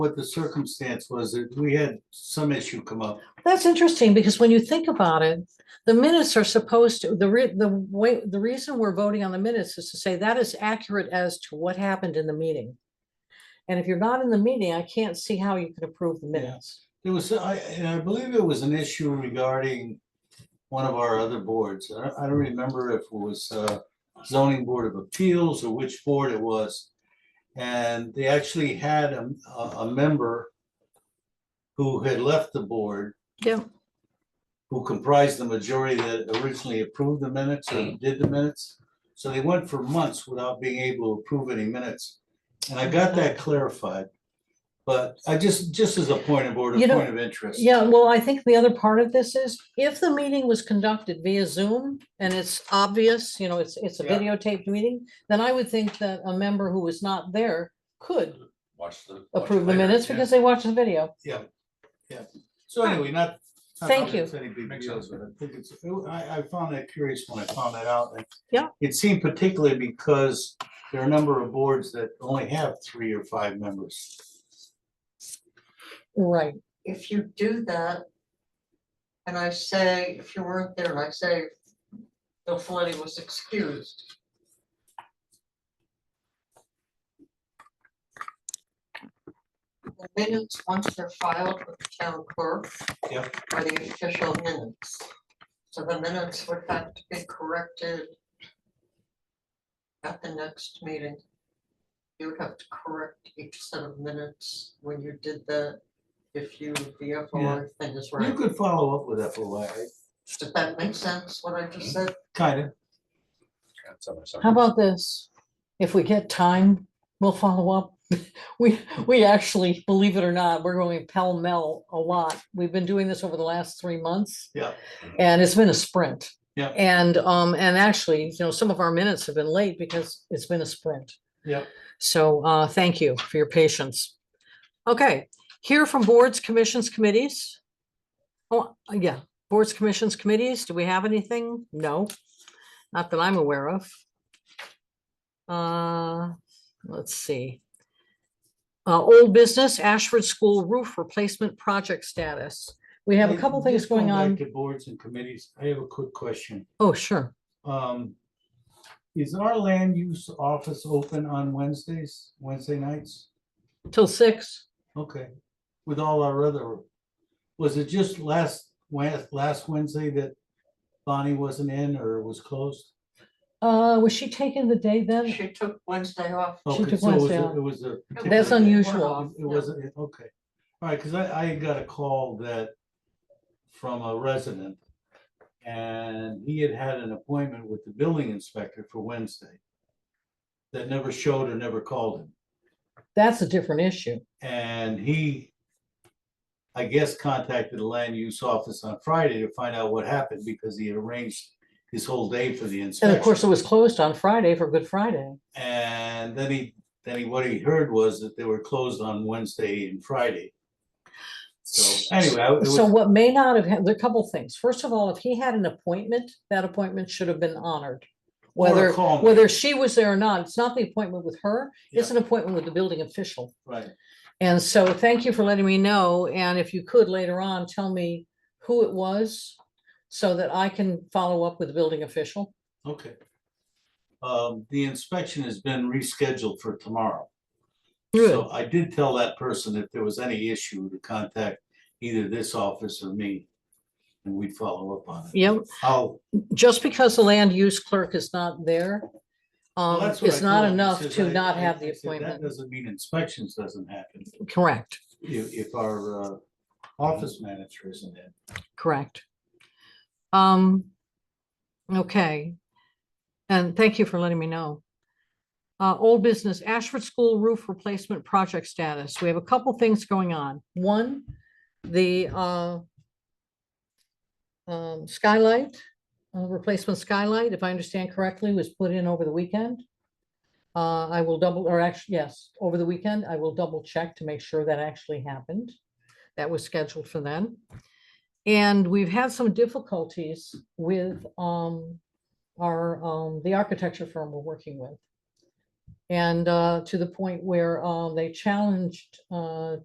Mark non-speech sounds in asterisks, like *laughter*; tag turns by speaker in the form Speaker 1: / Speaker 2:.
Speaker 1: what the circumstance was, that we had some issue come up.
Speaker 2: That's interesting, because when you think about it, the minutes are supposed to, the re, the way, the reason we're voting on the minutes is to say that is accurate as to what happened in the meeting. And if you're not in the meeting, I can't see how you can approve the minutes.
Speaker 1: There was, I, and I believe it was an issue regarding one of our other boards. I, I don't remember if it was, uh, zoning board of appeals or which board it was. And they actually had a, a a member who had left the board,
Speaker 2: Yeah.
Speaker 1: who comprised the majority that originally approved the minutes or did the minutes. So they went for months without being able to approve any minutes. And I got that clarified. But I just, just as a point of order,
Speaker 2: You know-
Speaker 1: point of interest.
Speaker 2: Yeah, well, I think the other part of this is if the meeting was conducted via Zoom and it's obvious, you know, it's, it's a
Speaker 1: Yeah.
Speaker 2: videotaped meeting, then I would think that a member who was not there could
Speaker 3: Watch the. watch
Speaker 2: approve the
Speaker 3: later,
Speaker 2: minutes
Speaker 3: yeah.
Speaker 2: because they watched the video.
Speaker 1: Yeah, yeah. So anyway, not. not
Speaker 2: Thank
Speaker 1: that
Speaker 2: you.
Speaker 1: it's any big
Speaker 3: Makes
Speaker 1: deal,
Speaker 3: sense.
Speaker 1: but I think it's, I, I found that curious when I found that out. and
Speaker 2: Yeah.
Speaker 1: It seemed particularly because there are a number of boards that only have three or five members.
Speaker 2: Right,
Speaker 4: if you do that. And I say, if you weren't there, and I say, Bill Folletti was excused. The Minutes, once they're filed with the town clerk.
Speaker 1: Yep.
Speaker 4: Are the official minutes. So the minutes would have to be corrected. At the next meeting. You would have to correct each set of minutes when you did that. If you, the FOI thing is
Speaker 1: You
Speaker 4: right.
Speaker 1: could follow up with FOI,
Speaker 4: Does that make sense, what I just said?
Speaker 1: kind of.
Speaker 3: That's on our side.
Speaker 2: how about this? If we get time, we'll follow up. *laughs* We, we actually, believe it or not, we're going pell mell a lot. We've been doing this over the last three months.
Speaker 1: Yeah.
Speaker 2: And it's been a sprint.
Speaker 1: Yeah.
Speaker 2: And, um, and actually, you know, some of our minutes have been late because it's been a sprint.
Speaker 1: Yeah.
Speaker 2: So, uh, thank you for your patience. Okay, here from boards, commissions, committees. Oh, yeah, boards, commissions, committees, do we have anything? No, not that I'm aware of. Uh, let's see. Uh, old business, Ashford School roof replacement project status. We have a
Speaker 1: Hey,
Speaker 2: couple things
Speaker 1: just going
Speaker 2: going
Speaker 1: back
Speaker 2: on.
Speaker 1: To boards and committees, I have a quick question.
Speaker 2: Oh, sure.
Speaker 1: Um, is our land use office open on Wednesdays, Wednesday nights?
Speaker 2: Till six.
Speaker 1: Okay, with all our other, was it just last, Wed- last Wednesday that Bonnie wasn't in or was closed?
Speaker 2: Uh, was she taking the day then?
Speaker 4: She took Wednesday off.
Speaker 1: Mm-hmm. Oh,
Speaker 2: She
Speaker 1: Okay,
Speaker 2: took
Speaker 1: so it was
Speaker 2: Wednesday
Speaker 1: a-
Speaker 2: off.
Speaker 1: It was a.
Speaker 2: That's
Speaker 1: particular day.
Speaker 2: unusual.
Speaker 1: It wasn't, okay, all right, because I, I got a call that from a resident. And he had had an appointment with the building inspector for Wednesday. That never showed or never called him.
Speaker 2: That's a different issue.
Speaker 1: And he, I guess, contacted the land use office on Friday to find out what happened because he had arranged his whole day for the
Speaker 2: And
Speaker 1: inspection.
Speaker 2: of course, it was closed on Friday for Good Friday.
Speaker 1: And then he, then he, what he heard was that they were closed on Wednesday and Friday. So anyway, I- it
Speaker 2: So
Speaker 1: was,
Speaker 2: what may not have, had- there are a couple things. First of all, if he had an appointment, that appointment should have been honored.
Speaker 1: Or a
Speaker 2: Whether,
Speaker 1: call me.
Speaker 2: whether she was there or not, it's not the appointment with her, it's
Speaker 1: Yeah.
Speaker 2: an appointment with the building official.
Speaker 1: right,
Speaker 2: And so thank you for letting me know. And if you could later on, tell me who it was so that I can follow up with the building official.
Speaker 1: okay. Um, the inspection has been rescheduled for tomorrow.
Speaker 2: Good.
Speaker 1: So I did tell that person if there was any issue to contact either this office or me. And we'd follow up on it.
Speaker 2: Yep.
Speaker 1: I'll
Speaker 2: just because the land use clerk is not there, um,
Speaker 1: It's
Speaker 2: is not enough to not have the
Speaker 1: That
Speaker 2: appointment.
Speaker 1: doesn't mean inspections doesn't happen
Speaker 2: Correct,
Speaker 1: if, if our, uh, office manager isn't in.
Speaker 2: correct. Um, okay. And thank you for letting me know. Uh, old business, Ashford School roof replacement project status. We have a couple things going on. One, the, uh, um, skylight, uh, replacement skylight, if I understand correctly, was put in over the weekend. Uh, I will double, or actually, yes, over the weekend, I will double check to make sure that actually happened. That was scheduled for then. And we've had some difficulties with, um, our, um, the architecture firm we're working with. And, uh, to the point where, um, they challenged, uh,